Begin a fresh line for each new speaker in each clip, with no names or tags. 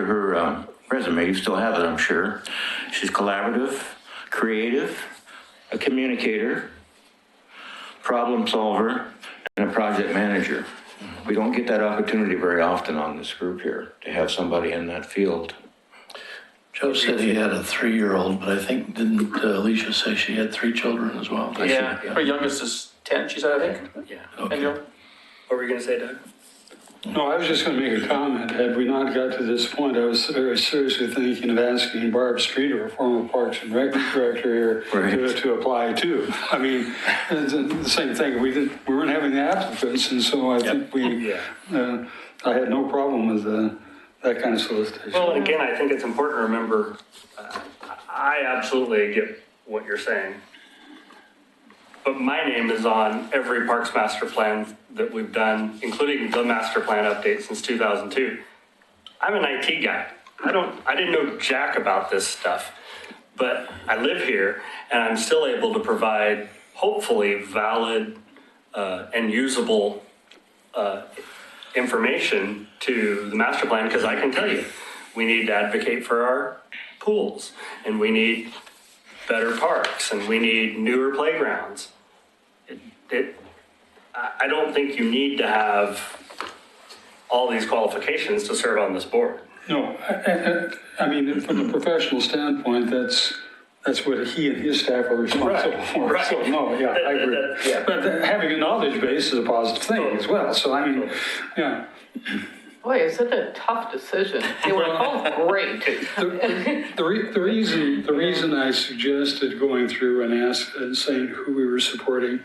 her um, resume. You still have it, I'm sure. She's collaborative, creative, a communicator, problem solver, and a project manager. We don't get that opportunity very often on this group here to have somebody in that field.
Joe said he had a three-year-old, but I think, didn't uh, Alicia say she had three children as well? Does she?
Yeah, her youngest is 10, she said, I think.
Yeah.
And you're-
What were you gonna say, Doug?
No, I was just going to make a comment. Had we not got to this point, I was very seriously thinking of asking Barb Streeter, a former Parks and Rec director here, to,
Right.
to apply too. I mean, it's the same thing. We didn't, we weren't having the applicants, and so I think we,
Yeah.
uh, I had no problem with uh, that kind of solicitation.
Well, and again, I think it's important to remember, uh, I absolutely get what you're saying. But my name is on every Parks Master Plan that we've done, including the master plan update since 2002. I'm an IT guy. I don't, I didn't know jack about this stuff. But I live here and I'm still able to provide hopefully valid uh, and usable information to the master plan because I can tell you, we need to advocate for our pools and we need better parks and we need newer playgrounds. It, it, I, I don't think you need to have all these qualifications to serve on this board.
No, I, I, I mean, from a professional standpoint, that's, that's what he and his staff are responsible
Right,
for.
right.
So, no, yeah, I agree.
That- that- yeah.
But having a knowledge base is a positive thing as well. So I mean, yeah.
Boy, is it a tough decision. They were both great.
The, the, re- the reason, the reason I suggested going through and ask and saying who we were supporting,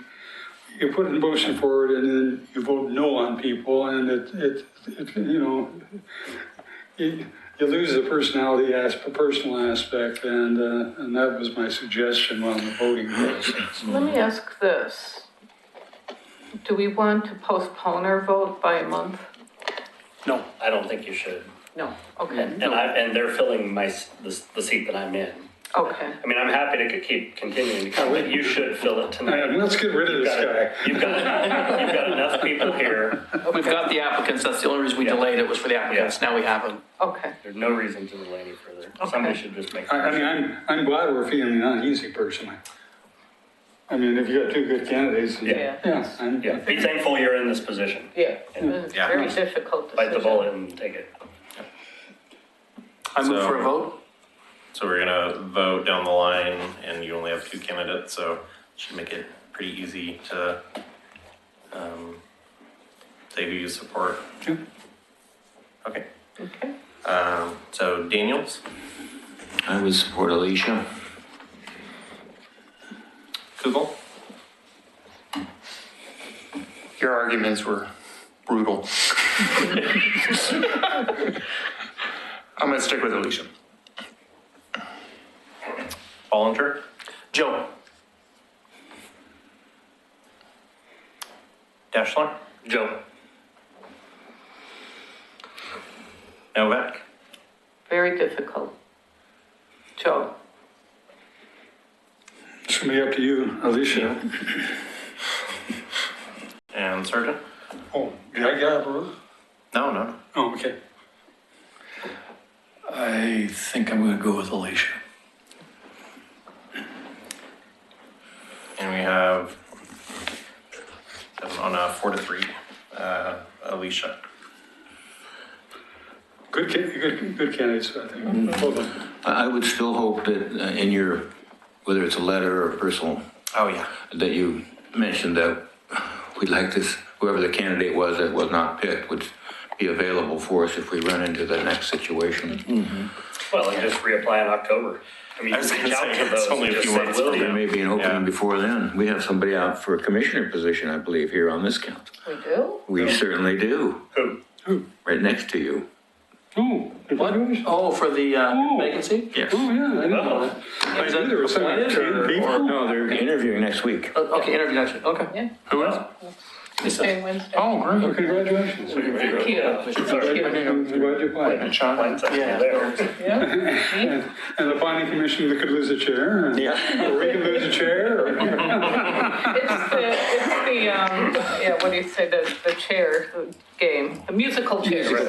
you put a motion forward and then you vote no on people and it, it, it you know, you, you lose the personality aspect, personal aspect, and, uh, and that was my suggestion on the voting process.
Let me ask this. Do we want to postpone our vote by a month?
No,
I don't think you should.
No, okay,
And I, and they're filling my, s- the, s- the seat that I'm in.
okay.
I mean, I'm happy to c- keep continuing to come, but you should fill it tonight.
And let's get rid of
You've
this
got-
guy.
You've got, you've got enough people here.
We've got the applicants, that's the only reason we
Yeah.
delayed it was for the applicants, now we have them.
Okay,
There's no reason to delay any further. Somebody should just make.
I, I mean, I'm, I'm glad we're feeling uneasy personally. I mean, if you got two good candidates.
Yeah.
Yeah, I'm-
Yeah, be thankful you're in this position.
yeah, it
And
was a very difficult
Bite the
decision.
bullet and take it.
I move
So-
for a vote?
So we're gonna vote down the line and you only have two candidates, so should make it pretty easy to um, say who you support.
Sure.
Okay. Um, so Daniels,
I would support Alicia.
Kugel,
Your arguments were brutal. I'm going to stick with Alicia.
Ballinger,
Joe?
Deschler,
Joe.
Novak,
Very difficult. Joe,
It's gonna be up to you, Alicia.
and Surgeon.
Oh, did I get it wrong?
No, no, no.
Oh, okay.
I think I'm gonna go with Alicia.
And we have seven on a four to three. Uh, Alicia.
Good, ca- good, good candidates, I think. Hold on.
I I would still hope that uh, in your, whether it's a letter or a personal
Oh yeah.
that you mentioned that we'd like this, whoever the candidate was that was not picked would be available for us if we run into the next situation.
Well, and just reapply in October. I mean,
I
you
was
can
gonna
reach out
say,
to those
it's only
and
a
just
few
say,
months
will
till
you?
There may be an
Yeah.
opening before then. We have somebody out for a commissioner position, I believe, here on this count.
we do?
We certainly do,
Who?
right next to you.
Oh, congratulations.
Oh, for the uh,
Oh.
vacancy?
Yes.
Oh, yeah, I didn't know that. Oh. I
Is
knew
that
there was some
appointed or-
good
or-
people.
No, they're interviewing next week.
Oh, Okay, interview next week, okay.
Yeah.
Who else?
Same Wednesday.
Oh,
Oh,
great.
Congratulations.
Thank you.
Glad you- glad you applied.
Mine's up
Yeah.
there.
And and the planning commission that could lose a chair, and-
Yeah.
or we could lose a chair, or-
It's the, it's the, um, yeah, what do you say, the, the chair game, the musical chair.